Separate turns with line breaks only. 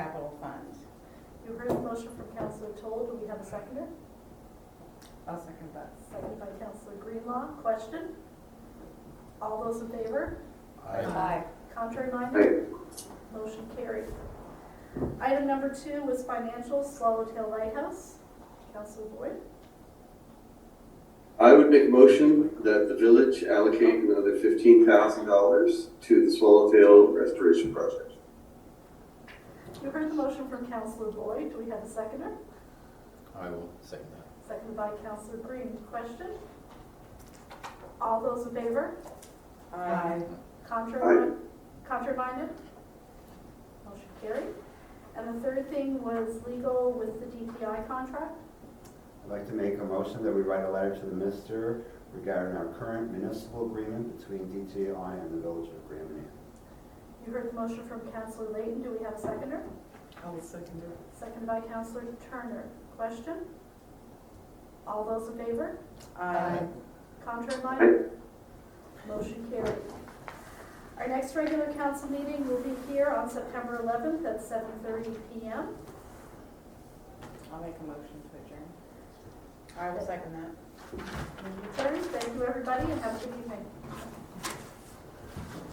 You heard the motion from Counselor Toll, do we have a seconder?
I'll second that.
Seconded by Counselor Greenlaw, question? All those in favor?
Aye.
Contrary minded? Motion carried. Item number two was financial, Swallowtail Lighthouse. Counselor Boyd?
I would make a motion that the village allocate another fifteen thousand dollars to the Swallowtail Restoration Project.
You heard the motion from Counselor Boyd, do we have a seconder?
I will second that.
Seconded by Counselor Green, question? All those in favor?
Aye.
Contrary, contrary minded? Motion carried. And the third thing was legal with the DTI contract.
I'd like to make a motion that we write a letter to the minister regarding our current municipal agreement between DTI and the Village of Grand Manan.
You heard the motion from Counselor Layton, do we have a seconder?
I'll second it.
Seconded by Counselor Turner. Question? All those in favor?
Aye.
Contrary minded? Motion carried. Our next regular council meeting will be here on September 11th at 7:30 PM.
I'll make a motion to adjourn. I will second that.
Meeting adjourned. Thank you, everybody, and have a good evening.